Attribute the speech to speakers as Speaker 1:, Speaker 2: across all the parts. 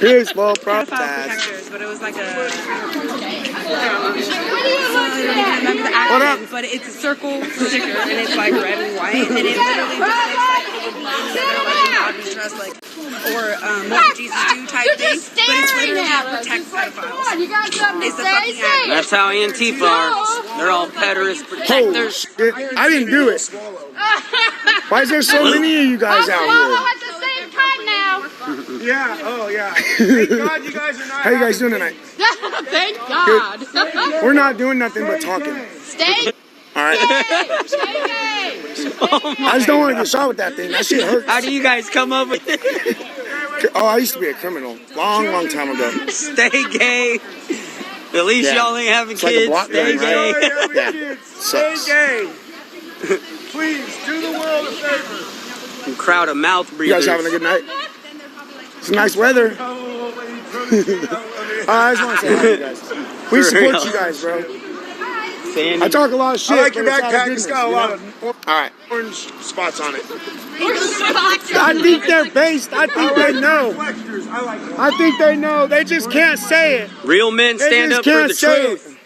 Speaker 1: Here's small
Speaker 2: pedophile
Speaker 1: prophesize.
Speaker 2: protectors, but it was like a. I don't remember the acronym, but it's a circle sticker and it's like red and white, and it literally was like, like trust, like, or um, what would Jesus do type
Speaker 3: You're
Speaker 2: thing.
Speaker 3: just
Speaker 2: But it's
Speaker 3: staring
Speaker 2: literally
Speaker 3: at
Speaker 2: to
Speaker 3: us.
Speaker 2: protect
Speaker 3: It's like, come
Speaker 2: pedophiles.
Speaker 3: on, you got something
Speaker 2: It's
Speaker 3: to
Speaker 2: a
Speaker 3: say?
Speaker 2: fucking
Speaker 3: Say it.
Speaker 4: That's how Antifa are. They're all pederast
Speaker 1: Holy
Speaker 4: protectors.
Speaker 1: shit. I didn't do it. Why is there so many of you guys
Speaker 3: Swallow
Speaker 1: out
Speaker 3: at the same time now.
Speaker 5: Yeah, oh yeah. Thank God you guys are
Speaker 1: here?
Speaker 5: not.
Speaker 1: How you guys doing tonight?
Speaker 3: Thank God.
Speaker 1: We're not doing nothing but talking.
Speaker 3: Stay
Speaker 1: All right.
Speaker 3: gay.
Speaker 1: I just don't want to get shot with that thing. That shit hurts.
Speaker 4: How do you guys come up with this?
Speaker 1: Oh, I used to be a criminal. Long, long time ago.
Speaker 4: Stay gay. At least
Speaker 1: Yeah.
Speaker 4: y'all ain't having
Speaker 1: It's like a
Speaker 4: kids.
Speaker 1: block
Speaker 4: Stay
Speaker 1: grant,
Speaker 4: gay.
Speaker 1: right? Yeah.
Speaker 5: Stay
Speaker 1: Sucks.
Speaker 5: gay. Please do the world a favor.
Speaker 4: Crowd of mouth
Speaker 1: You guys
Speaker 4: breathers.
Speaker 1: having a good night? It's nice weather.
Speaker 5: Oh, lady,
Speaker 1: Uh, I just want to say hi to you guys. We
Speaker 4: For
Speaker 1: support
Speaker 4: real.
Speaker 1: you guys, bro.
Speaker 4: Sandy.
Speaker 1: I talk a lot of shit.
Speaker 5: I like your
Speaker 1: but it's out of
Speaker 5: backpack.
Speaker 1: goodness,
Speaker 5: It's got a
Speaker 1: you
Speaker 5: lot
Speaker 1: know?
Speaker 5: of
Speaker 1: All right.
Speaker 5: orange spots on it.
Speaker 1: I think they're based. I think they know.
Speaker 5: Flexors, I like them.
Speaker 1: I think they know. They just can't say it.
Speaker 4: Real men
Speaker 1: They
Speaker 4: stand
Speaker 1: just
Speaker 4: up for
Speaker 1: can't
Speaker 4: the
Speaker 1: say
Speaker 4: truth.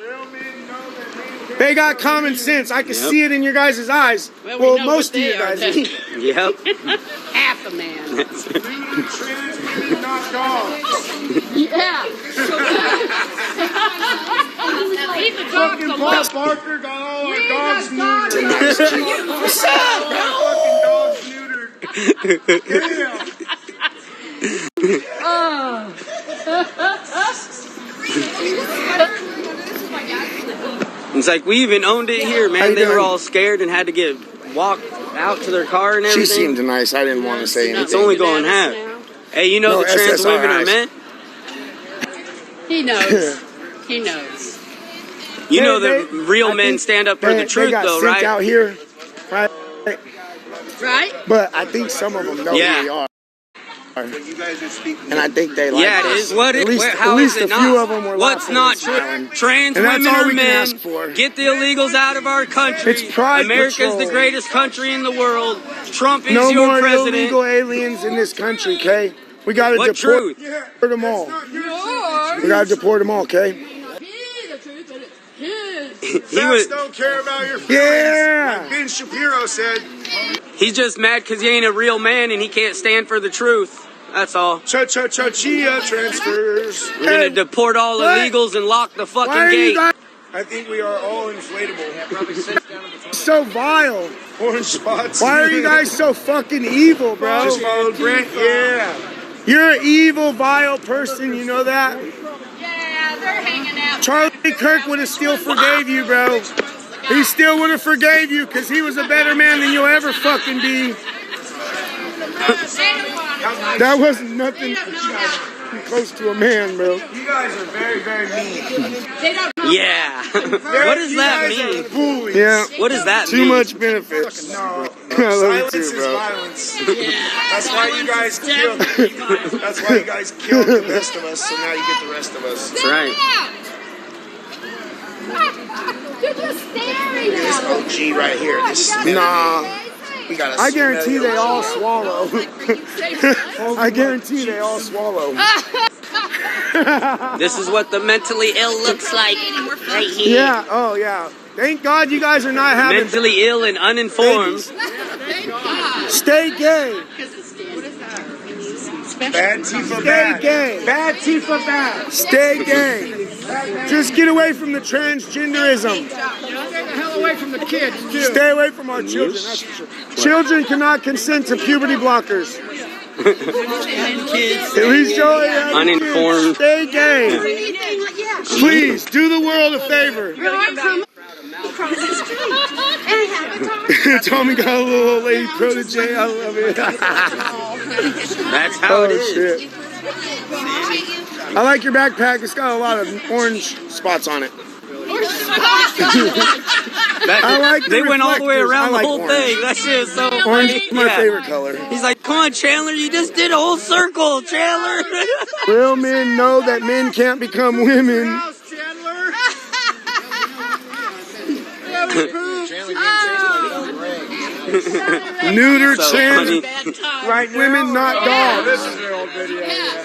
Speaker 5: Real men know that
Speaker 1: They got common sense. I can
Speaker 4: Yep.
Speaker 1: see it in your guys' eyes. Well,
Speaker 6: we know what
Speaker 1: most of
Speaker 6: they
Speaker 1: you
Speaker 6: are,
Speaker 1: guys.
Speaker 6: Ted.
Speaker 4: Yep.
Speaker 6: Half a man.
Speaker 5: they need trans women, not dogs.
Speaker 3: Yeah. Leave the dogs
Speaker 5: Fucking
Speaker 3: alone.
Speaker 5: Paul Barker got all our
Speaker 3: Leave
Speaker 5: dogs
Speaker 3: the dogs
Speaker 5: neutered.
Speaker 3: alone.
Speaker 5: Fucking dogs neutered. Damn.
Speaker 4: It's like we even owned it here,
Speaker 1: How you
Speaker 4: man. They were
Speaker 1: doing?
Speaker 4: all scared and had to get walked out to their car and
Speaker 1: She
Speaker 4: everything.
Speaker 1: seemed nice. I didn't want to
Speaker 6: It's
Speaker 1: say anything.
Speaker 4: it's only going half.
Speaker 6: Bananas now.
Speaker 4: Hey, you know
Speaker 1: No,
Speaker 4: the trans women are
Speaker 1: SSRIs.
Speaker 4: men.
Speaker 6: He knows. he knows.
Speaker 4: You
Speaker 1: They-
Speaker 4: know that
Speaker 1: they-
Speaker 4: real
Speaker 1: I
Speaker 4: men
Speaker 1: think
Speaker 4: stand up for
Speaker 1: they,
Speaker 4: the truth,
Speaker 1: they got
Speaker 4: though,
Speaker 1: sent
Speaker 4: right?
Speaker 1: out here, right?
Speaker 6: Right?
Speaker 1: But I think some of them know
Speaker 4: Yeah.
Speaker 1: who they are,
Speaker 5: But you guys are speaking.
Speaker 1: and I think they like.
Speaker 4: Yeah, it
Speaker 1: us.
Speaker 4: is. What
Speaker 1: At
Speaker 4: it,
Speaker 1: least,
Speaker 4: where,
Speaker 1: at
Speaker 4: how is
Speaker 1: least
Speaker 4: it
Speaker 1: a
Speaker 4: not?
Speaker 1: few of them were
Speaker 4: What's
Speaker 1: laughing
Speaker 4: not
Speaker 1: and
Speaker 4: true?
Speaker 1: smiling.
Speaker 4: Trans
Speaker 1: And that's
Speaker 4: women
Speaker 1: all
Speaker 4: are
Speaker 1: we can
Speaker 4: men.
Speaker 1: ask for.
Speaker 4: Get the illegals out of our country.
Speaker 1: It's Pride
Speaker 4: America's the
Speaker 1: Patrol.
Speaker 4: greatest country in the world. Trump is
Speaker 1: No
Speaker 4: your
Speaker 1: more
Speaker 4: president.
Speaker 1: illegal aliens in this country, okay? We gotta
Speaker 4: What
Speaker 1: deport
Speaker 4: truth?
Speaker 5: Yeah.
Speaker 1: them all. We gotta deport them all, okay?
Speaker 4: He
Speaker 5: Facts
Speaker 4: was,
Speaker 5: don't care about your feelings.
Speaker 1: Yeah.
Speaker 5: Like ben Shapiro said,
Speaker 4: he's just mad because he ain't a real man and he can't stand for the truth. That's all.
Speaker 5: cha cha cha chia transfers.
Speaker 4: We're gonna
Speaker 1: Hey,
Speaker 4: deport all
Speaker 1: what?
Speaker 4: illegals and lock the fucking
Speaker 1: Why are
Speaker 4: gate.
Speaker 1: you guys
Speaker 5: I think we are all inflatable.
Speaker 1: so vile?
Speaker 5: Orange spots.
Speaker 1: Why are you guys so fucking evil, bro?
Speaker 5: Just followed Brent. Yeah.
Speaker 1: You're an evil, vile person, you know that?
Speaker 3: Yeah, they're hanging out.
Speaker 1: Charlie Kirk would have still forgave you, bro. He still would have forgave you because he was a better man than you'll ever fucking be. That wasn't nothing close to a man, bro.
Speaker 5: You guys are very, very mean.
Speaker 4: Yeah. what does
Speaker 5: you
Speaker 4: that
Speaker 5: guys
Speaker 4: mean?
Speaker 5: Are bullies.
Speaker 1: Yeah,
Speaker 4: What does that
Speaker 1: too
Speaker 4: mean?
Speaker 1: much benefits.
Speaker 5: No.
Speaker 1: I love
Speaker 5: Silence
Speaker 1: you
Speaker 5: is
Speaker 1: too, bro.
Speaker 5: violence. That's why you guys killed. That's why you guys killed the rest of us. So now you get the rest of us.
Speaker 4: That's right.
Speaker 3: You're just staring
Speaker 5: This
Speaker 3: at us.
Speaker 5: OG right here. This,
Speaker 1: Nah,
Speaker 5: we got a
Speaker 1: I guarantee they all swallow. I guarantee they all swallow.
Speaker 4: This is what the mentally ill looks like right here.
Speaker 1: Yeah, oh yeah. Thank God you guys are not having.
Speaker 4: Mentally ill and uninformed.
Speaker 1: Stay gay.
Speaker 5: Bad Tifa
Speaker 1: Stay
Speaker 5: bad.
Speaker 1: gay.
Speaker 5: Bad Tifa bad.
Speaker 1: Stay gay. Just get away from the transgenderism. Stay away from our children. That's for sure. Children cannot consent to puberty blockers.
Speaker 4: Kids.
Speaker 1: At least y'all ain't having kids.
Speaker 4: Uninformed.
Speaker 1: Stay gay. Please do the world a favor. Tommy got a little old Oh, lady protege. I love it.
Speaker 4: That's how it
Speaker 1: oh
Speaker 4: is.
Speaker 1: shit. I like your backpack. It's got a lot of orange spots on it.
Speaker 4: That-
Speaker 1: I like the
Speaker 4: they went all the way
Speaker 1: reflectors. I
Speaker 4: around
Speaker 1: like
Speaker 4: the whole
Speaker 1: orange.
Speaker 4: thing. That shit is so
Speaker 1: Orange is my
Speaker 4: Yeah.
Speaker 1: favorite color.
Speaker 4: He's like, come on, Chandler, you just did a whole circle, Chandler.
Speaker 1: Real men know that men can't become women.
Speaker 5: Chandler.
Speaker 1: Neuter
Speaker 4: So
Speaker 1: trans
Speaker 4: funny.
Speaker 6: Bad time.
Speaker 1: women, not dogs.
Speaker 5: This is their old video.